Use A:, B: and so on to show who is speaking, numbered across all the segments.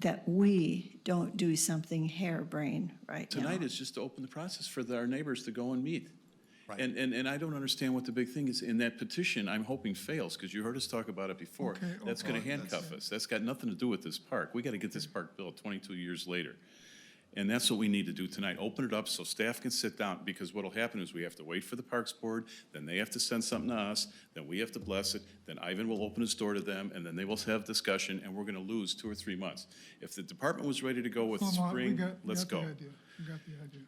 A: that we don't do something harebrained right now.
B: Tonight is just to open the process for the- our neighbors to go and meet.
C: Right.
B: And, and, and I don't understand what the big thing is, in that petition, I'm hoping fails, because you heard us talk about it before.
C: Okay, oh,
B: That's gonna
C: well, that's-
B: handcuff us, that's got nothing to do with this park, we gotta get this park built twenty-two years later. And that's what we need to do tonight, open it up so staff can sit down, because what'll happen is we have to wait for the Parks Board, then they have to send something to us, then we have to bless it, then Ivan will open his door to them, and then they will have discussion, and we're gonna lose two or three months. If the department was ready to go with
D: Come on, we
B: spring,
D: got- we
B: let's
D: got the
B: go.
D: idea. We got the idea.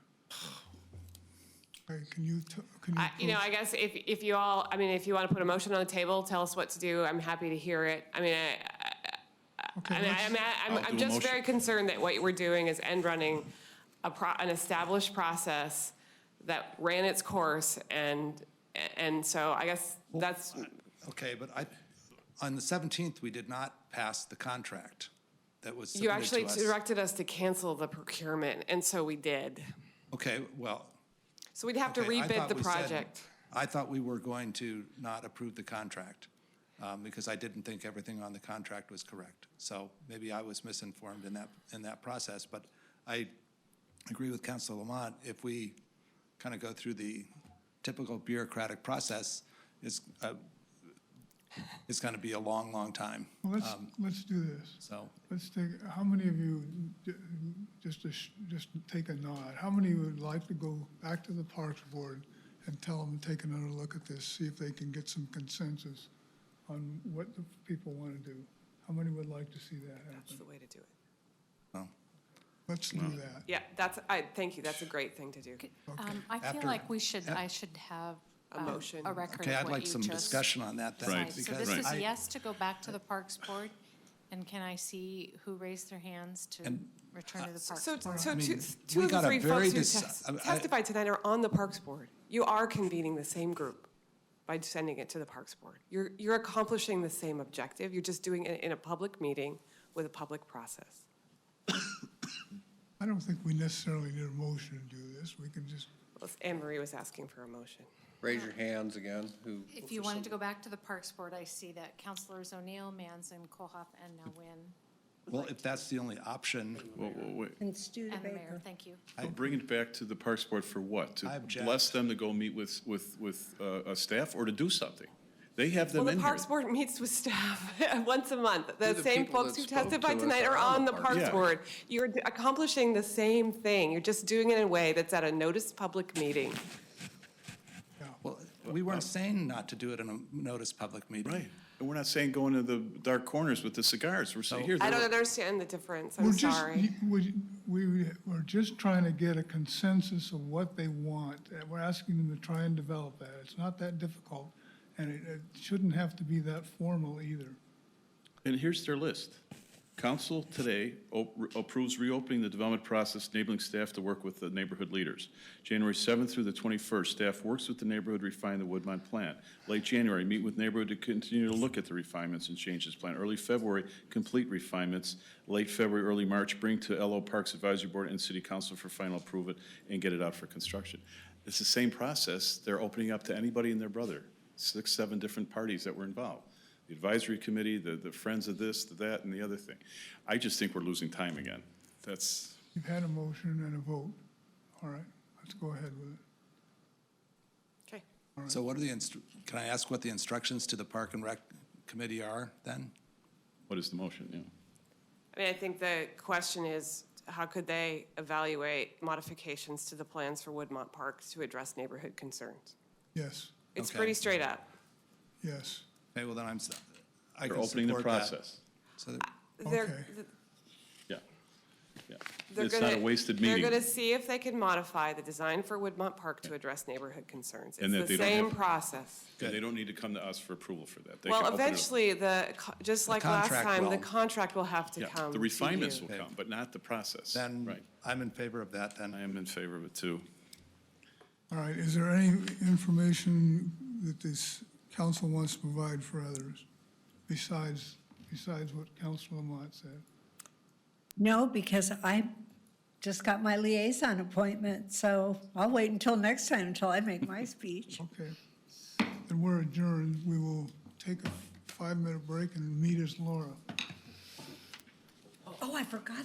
D: Okay, can you, t- can
E: I- You
D: you?
E: know, I guess if, if you all, I mean, if you want to put a motion on the table, tell us what to do. I'm happy to hear it. I mean, I,
D: Okay,
E: I mean,
D: let's-
B: I'll
E: I'm, I'm,
B: do
E: I'm
B: a
E: just
B: motion.
E: very concerned that what we're doing is end running a pro, an established process that ran its course and, and so I guess that's,
C: Okay, but I, on the 17th, we did not pass the contract that was
E: you
C: submitted
E: actually
C: to us.
E: directed us to cancel the procurement and so we did.
C: Okay, well.
E: So we'd have to
C: okay, I
E: rebid
C: thought
E: the
C: we said-
E: project.
C: I thought we were going to not approve the contract um, because I didn't think everything on the contract was correct. So maybe I was misinformed in that, in that process, but I agree with Council Lamont. If we kind of go through the typical bureaucratic process, it's, uh, it's going to be a long, long time.
D: well, Let's,
B: Um,
D: let's do this.
C: So
D: Let's take, how many of you, j- just to, sh- just take a nod, how many would like to go back to the Parks Board and tell them to take another look at this, see if they can get some consensus on what the people want to do? How many would like to see that
E: That's
D: happen?
E: the way to do it.
D: Let's do that.
E: Yeah, that's, I, thank you. That's a great thing to do.
F: Um, I feel
C: After-
F: like we should, I should have.
E: A
F: um,
E: motion.
F: A record
C: Okay,
F: of
C: I'd
F: what
C: like
F: you
C: some
F: just.
C: discussion on that then.
B: Right.
F: decided. So
C: because
F: this is
C: I-
F: yes to go back to the Parks Board, and can I see who raised their hands to return
C: uh,
F: to the Parks
E: So,
F: Board?
E: so
C: I
E: two,
C: mean,
E: two
C: we
E: of the
C: got a
E: three
C: very
E: folks who
C: deci-
E: tes-
C: I- I-
E: testified tonight are on the Parks Board. You are convening the same group by sending it to the Parks Board. You're, you're accomplishing the same objective, you're just doing it in a public meeting with a public process.
D: I don't think we necessarily need a motion to do this. We can just
E: Anne Marie was asking for a motion.
G: Raise your hands again, who,
F: If you wanted to go back to the Parks Board, I see that Councilors O'Neill, Manzin, Kohoff, and now Nguyen,
C: Well, if that's the only option,
B: Whoa, whoa, wait.
H: And
F: and the mayor,
H: Studebaker.
F: thank you.
B: Well, Bring it back to the Parks Board for what?
C: I
B: To
C: object.
B: bless them to go meet with, with, with uh, a staff or to do something? They have them
E: Well, the
B: in here.
E: Parks Board meets with staff once a month. The
G: They're the
E: same
G: people
E: folks
G: that
E: who
G: spoke to
E: testified
G: us
E: tonight are on the Parks
B: Yeah.
E: Board. You're d- accomplishing the same thing, you're just doing it in a way that's at a noticed public meeting.
C: well, we weren't saying not to do it in a notice public meeting.
B: Right. And we're not saying go into the dark corners with the cigars. We're saying, here,
E: I
B: they're-
E: don't understand the difference,
D: We're
E: I'm
D: just-
E: sorry.
D: y- We, we, we're just trying to get a consensus of what they want. and We're asking them to try and develop that. It's not that difficult, and it, it shouldn't have to be that formal either.
B: and here's their list. Council today o- approves reopening the development process, enabling staff to work with the neighborhood leaders. January 7th through the 21st, staff works with the neighborhood, refine the Woodmont plan. Late January, meet with neighborhood to continue to look at the refinements and changes plan. Early February, complete refinements. Late February, early March, bring to LO Parks Advisory Board and City Council for final approval and get it out for construction. It's the same process. They're opening up to anybody and their brother, six, seven different parties that were involved. The advisory committee, the, the friends of this, the that, and the other thing. I just think we're losing time again. That's,
D: You've had a motion and a vote. All right, let's go ahead with it.
E: Okay.
C: So what are the, instru- can I ask what the instructions to the Park and Rec Committee are then?
B: what is the motion, yeah?
E: I mean, I think the question is, how could they evaluate modifications to the plans for Woodmont Park to address neighborhood concerns?
D: Yes,
E: It's
C: Okay.
E: pretty straight up.
D: yes.
C: Okay, well, then I'm, s- I
B: They're
C: can
B: opening the
C: support that.
B: process.
C: So
E: They're,
D: Okay.
B: Yeah. Yeah.
E: they're
B: It's not a
E: gonna-
B: wasted meeting.
E: They're gonna see if they can modify the design for Woodmont Park to address neighborhood concerns.
B: And that
E: It's
B: they
E: the
B: don't have
E: same
B: to-
E: process.
B: And they don't need to come to us for approval for that. They can
E: Well,
B: open it up.
E: eventually, the, co- just like last
C: contract
E: time, the
C: will.
E: contract will have to
B: Yeah,
E: come
B: The
E: to
B: refinements
E: you.
B: will come, but not the process.
C: then
B: Right.
C: I'm in favor of that
B: I
C: then.
B: am in favor of it too.
D: All right, is there any information that this council wants to provide for others besides, besides what Council Lamont said?
H: No, because I just got my liaison appointment, so I'll wait until next time until I make my speech.
D: Okay. Then we're adjourned. We will take a five-minute break and meet as Laura.
H: oh, I forgot